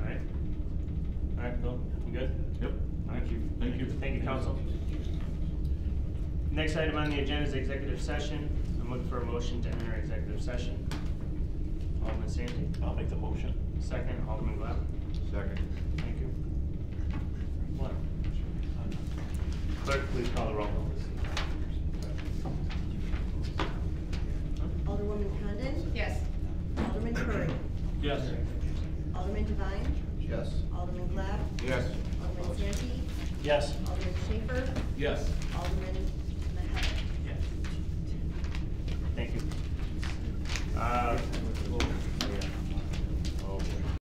Good? Yep, Thank you. thank you. Thank you, council. Next item on the agenda is executive session. I'm looking for a motion to enter executive session. Alderman Sandy, I'll make the motion. second, Alderman Glab. Second. Thank you. One. Clerk, please call the roll. Alderwoman Condon? Yes. Alderman Curry? Yes. Alderman Devine? Yes. Alderman Glab? Yes. Alderman Sandy? Yes. Alderman Schaper? Yes. Alderman Mahalik? Thank you. Uh,